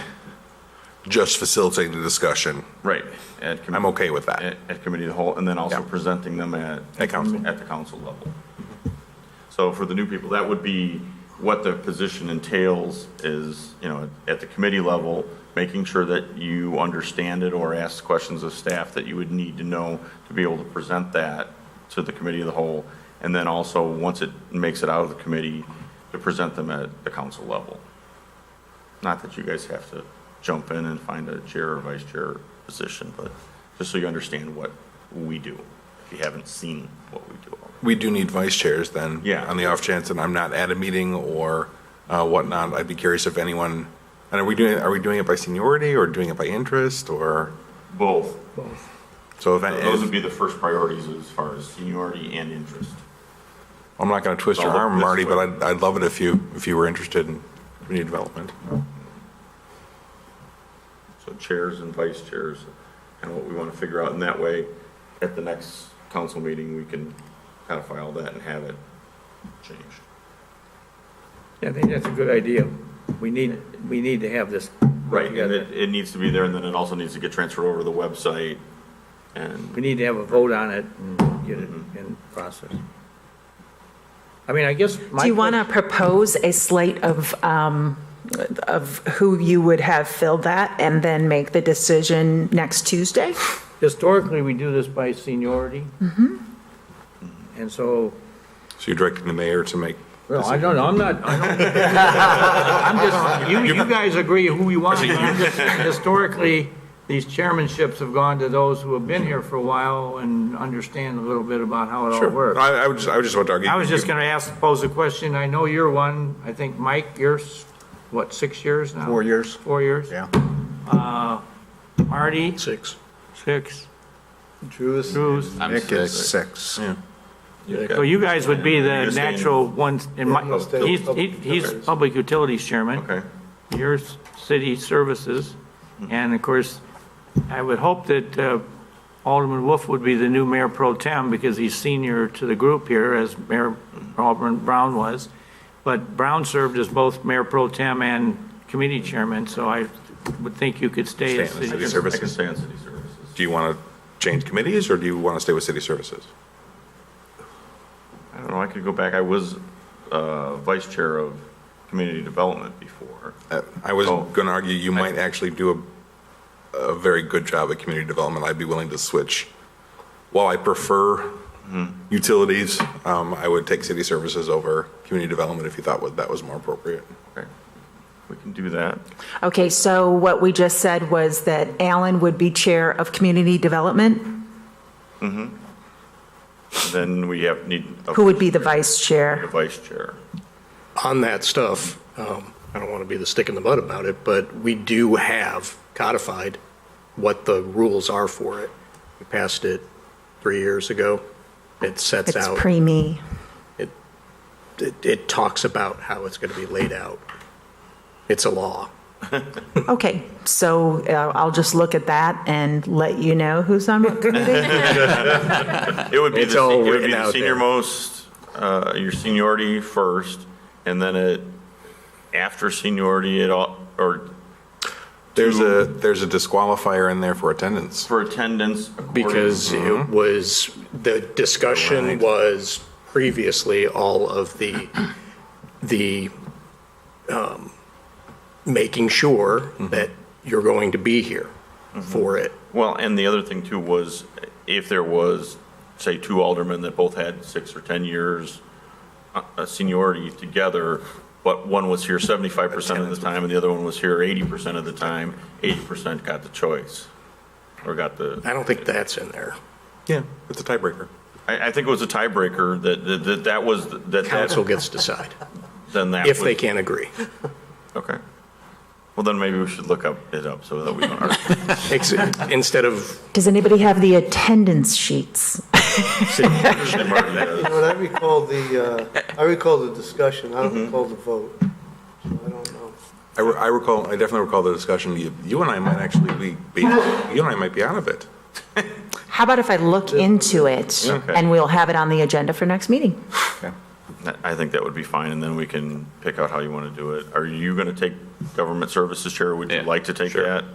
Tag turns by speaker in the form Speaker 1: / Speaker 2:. Speaker 1: just facilitating the discussion.
Speaker 2: Right. at commi-
Speaker 1: I'm okay with that.
Speaker 2: At, at committee of the whole, and then also
Speaker 1: Yeah.
Speaker 2: presenting them at.
Speaker 1: At council.
Speaker 2: At the council level. So for the new people, that would be what the position entails is, you know, at the committee level, making sure that you understand it or ask questions of staff that you would need to know to be able to present that to the committee of the whole. And then also, once it makes it out of the committee, to present them at the council level. Not that you guys have to jump in and find a chair or vice chair position, but just so you understand what we do, if you haven't seen what we do. already.
Speaker 1: We do need vice chairs then.
Speaker 2: Yeah.
Speaker 1: On the off chance that I'm not at a meeting or uh, whatnot, I'd be curious if anyone, and are we doing, are we doing it by seniority or doing it by interest or,
Speaker 2: Both.
Speaker 1: so if,
Speaker 2: Those would
Speaker 1: I-
Speaker 2: be the first priorities as far as seniority and interest.
Speaker 1: I'm not going to twist your
Speaker 2: I'll look
Speaker 1: arm,
Speaker 2: this
Speaker 1: Marty, but
Speaker 2: way.
Speaker 1: I'd, I'd love it if you, if you were interested in community development.
Speaker 2: So chairs and vice chairs and what we want to figure out. And that way, at the next council meeting, we can codify all that and have it changed.
Speaker 3: Yeah, I think that's a good idea. We need, we need to have this.
Speaker 2: Right, and
Speaker 3: together.
Speaker 2: it, it needs to be there and then it also needs to get transferred over to the website and.
Speaker 3: We need to have a vote on it and get it in process. I mean, I guess my.
Speaker 4: Do you want to propose a slate of, um, of who you would have filled that and then make the decision next Tuesday?
Speaker 3: question- Historically, we do this by seniority.
Speaker 4: Mm-hmm.
Speaker 3: And so,
Speaker 1: So you're directing the mayor to make,
Speaker 3: well, I don't know, I'm not, I don't. I'm just, you, you guys agree who you want. but I'm just- Historically, these chairmanships have gone to those who have been here for a while and understand a little bit about how it all
Speaker 1: sure,
Speaker 3: works.
Speaker 1: I, I would just, I would just want to argue.
Speaker 3: I was just going to ask, pose a question. I know you're one, I think, Mike, you're, s- what, six years now?
Speaker 5: Four years.
Speaker 3: Four years? Uh,
Speaker 5: Yeah.
Speaker 3: Marty?
Speaker 5: Six.
Speaker 3: Six.
Speaker 5: Drews.
Speaker 3: Drews?
Speaker 5: Nick is six.
Speaker 3: So you guys would be the
Speaker 2: You're staying-
Speaker 3: natural ones, in my,
Speaker 5: Yeah, I'll stay.
Speaker 3: he's, he- he's Public Utilities Chairman.
Speaker 2: Okay.
Speaker 3: Your City Services, and of course, I would hope that uh, Alderman Wolf would be the new mayor pro tem because he's senior to the group here, as Mayor Alderman Brown was. But Brown served as both mayor pro tem and committee chairman, so I would think you could stay as
Speaker 1: Stay on the
Speaker 3: city.
Speaker 1: city.
Speaker 2: I can
Speaker 1: services.
Speaker 2: stay on city services.
Speaker 1: Do you want to change committees or do you want to stay with city services?
Speaker 2: I don't know, I could go back, I was uh, vice chair of community development before.
Speaker 1: Uh, I was
Speaker 2: Oh.
Speaker 1: going to argue you might actually do a, a very good job at community development. I'd be willing to switch. While I prefer Mm-hmm. utilities, um, I would take city services over community development if you thought wa- that was more appropriate.
Speaker 2: Okay. We can do that.
Speaker 4: Okay, so what we just said was that Alan would be Chair of Community Development.
Speaker 2: Then we have, need. a-
Speaker 4: Who would be the Vice
Speaker 2: A
Speaker 4: Chair?
Speaker 2: vice chair.
Speaker 6: on that stuff, um, I don't want to be the stick in the mud about it, but we do have codified what the rules are for it. We passed it three years ago. It sets
Speaker 4: It's
Speaker 6: out,
Speaker 4: pre-me.
Speaker 6: it, it talks about how it's going to be laid out. It's a law.
Speaker 4: Okay, so uh, I'll just look at that and let you know who's on what committee.
Speaker 2: It would be
Speaker 6: Uh,
Speaker 2: the,
Speaker 6: It's
Speaker 2: se-
Speaker 6: all
Speaker 2: it would
Speaker 6: written
Speaker 2: be the
Speaker 6: out there.
Speaker 2: senior most, uh, your seniority first, and then it, after seniority, it all, or
Speaker 1: There's a, there's a disqualifier in there for attendance.
Speaker 2: for attendance. according-
Speaker 6: Because it was, the discussion was previously all of the, the, um, making sure that you're going to be here for it.
Speaker 2: Well, and the other thing too was, if there was, say, two aldermen that both had six or 10 years uh, uh, seniority together, but one was here 75% of the time and the other one was here 80% of the time, 80% got the choice, or got the.
Speaker 6: I don't think that's in there.
Speaker 1: Yeah. It's a tiebreaker.
Speaker 2: I, I think it was a tiebreaker that, that, that that was, that,
Speaker 6: Council
Speaker 2: that,
Speaker 6: gets to decide,
Speaker 2: then that was.
Speaker 6: if they can't agree.
Speaker 2: Okay. Well, then maybe we should look up, it up so that we don't argue.
Speaker 6: Ex- Instead of,
Speaker 4: Does anybody have the attendance sheets?
Speaker 2: Marty does.
Speaker 7: But I recall the, uh, I recall the discussion, I don't recall the vote, so I don't know.
Speaker 1: I re- I recall, I definitely recall the discussion. You, you and I might actually be, be, you and I might be out of it.
Speaker 4: How about if I look into it
Speaker 2: Okay.
Speaker 4: and we'll have it on the agenda for next meeting?
Speaker 2: I think that would be fine, and then we can pick out how you want to do it. Are you going to take government services chair? Would you like to take that?